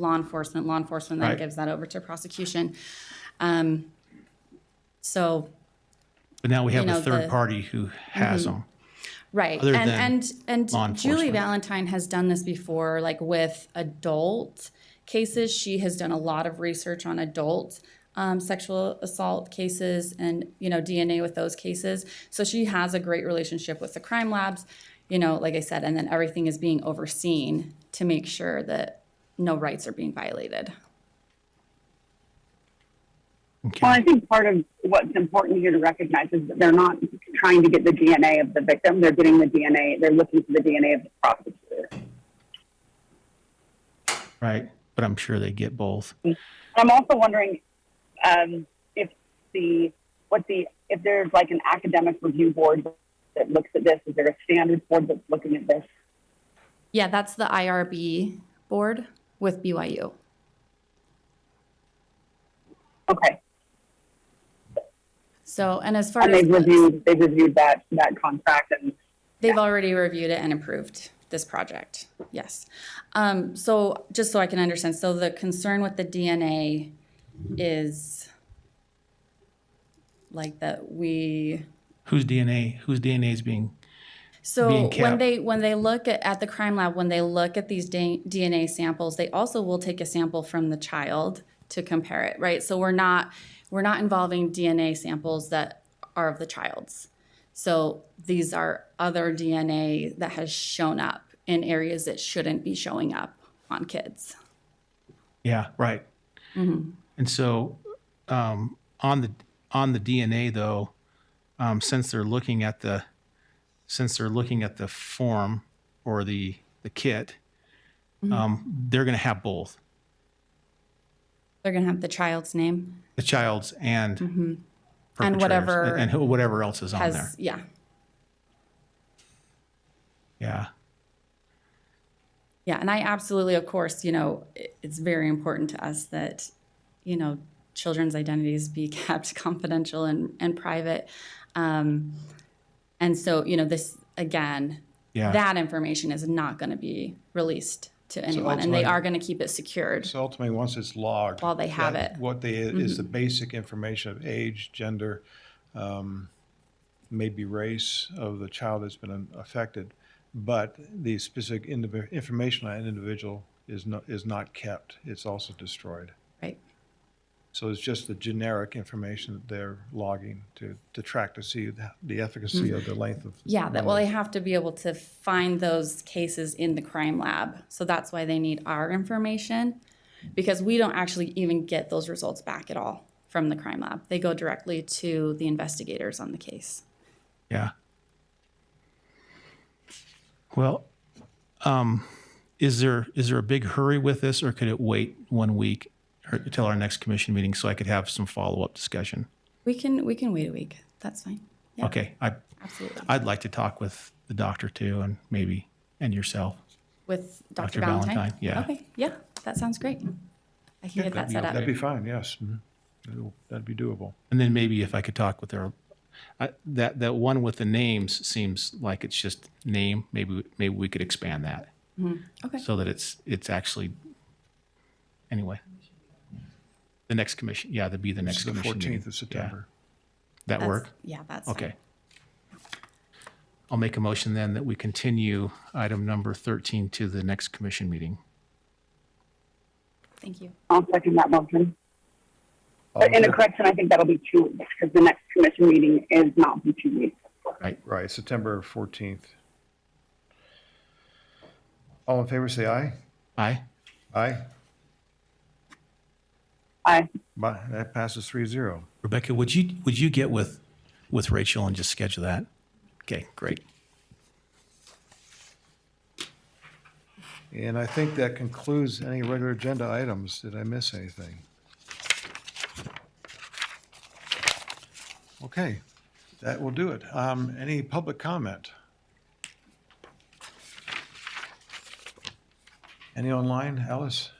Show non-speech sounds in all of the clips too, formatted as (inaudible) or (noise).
law enforcement, law enforcement then Right. gives that over to prosecution. Um, So, But now we have you a know, third the- Mm-hmm. party who has them. right, Other and, than and, law and Julie enforcement. Valentine has done this before, like with adult cases. She has done a lot of research on adult um, sexual assault cases and, you know, DNA with those cases. So she has a great relationship with the crime labs, you know, like I said, and then everything is being overseen to make sure that no rights are being violated. Well, Okay. I think part of what's important here to recognize is that they're not trying to get the DNA of the victim. They're getting the DNA, they're looking for the DNA of the prosecutor. Right. But I'm sure they get both. I'm also wondering um, if the, what the, if there's like an academic review board that looks at this, is there a standards board that's looking at this? Yeah, that's the IRB board with BYU. Okay. So, and as far And as they've reviewed, they've reviewed that, that contract and they've already reviewed it and approved this project. Yes. Um, so, just so I can understand, so the concern with the DNA is like that we Whose DNA? Whose DNA is being? so Being when kept. they when they look at, at the crime lab when they look at these da- DNA samples they also will take a sample from the child to compare it right so we're not we're not involving DNA samples that are of the child's so these are other DNA that has shown up in areas that shouldn't be showing up on kids Yeah. Right. Mm-hmm. And so, um, on the on the DNA though, um, since they're looking at the since they're looking at the form or the the kit, Mm-hmm. um, they're going to have both they're going to have the child's name the child's and Mm-hmm. And perpetrators, whatever and, and who- whatever else is on there. has yeah Yeah. Yeah, and I absolutely, of course, you know, it- it's very important to us that, you know, children's identities be (laughs) kept confidential and, and private. Um, and so, you know, this, again, Yeah. that information is not going to be released to anyone, and they ultimately- are going to keep it secured. So ultimately, once it's logged. While they have that- it. Mm-hmm. What they, is the basic information of age, gender, um, maybe race of the child that's been um, affected. But the specific indivi- information on an individual is not, is not kept. It's also destroyed. Right. So it's just the generic information that they're logging to, to track to see the- the efficacy of the length of. Mm-hmm. Yeah, that well, they have to be able to find those cases in the crime lab. So that's why they need our information because we don't actually even get those results back at all from the crime lab. They go directly to the investigators on the case. Yeah. Well, um, is there, is there a big hurry with this or could it wait one week or till our next commission meeting so I could have some follow-up discussion? We can we can wait a week. That's fine. Yeah, Okay, I, absolutely. I'd like to talk with the doctor too and maybe, and yourself. With Dr. Dr. Valentine. Valentine, yeah. Okay. Yeah, that sounds great. I can get that'd that be set up. That'd be fine, yes. Mhm. That'll- That'd be doable. And then maybe if I could talk with her, I, that, that one with the names seems like it's just name. Maybe, maybe we could expand that Okay. so that it's, it's actually, anyway. The next commission, yeah, that'd be the next It's the commission meeting. 14th of Yeah. September. That That's- work? Yeah, that's fine. Okay. I'll make a motion then that we continue item number 13 to the next commission meeting. Thank you. I'll second that motion. But in a Okay. correction, I think that'll be two weeks because the next commission meeting is not in two weeks. Right, September 14th. All in favor, say aye. Aye? Aye. Aye. Bye. That passes 3-0. Rebecca, would you, would you get with, with Rachel and just schedule that? Okay, great. And I think that concludes any regular agenda items. Did I miss anything? Okay, that will do it. Um, Any public comment? Any online, Alice?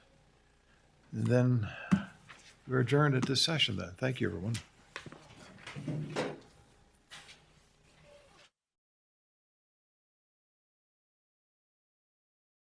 Then we're adjourned at this session then. Thank you, everyone.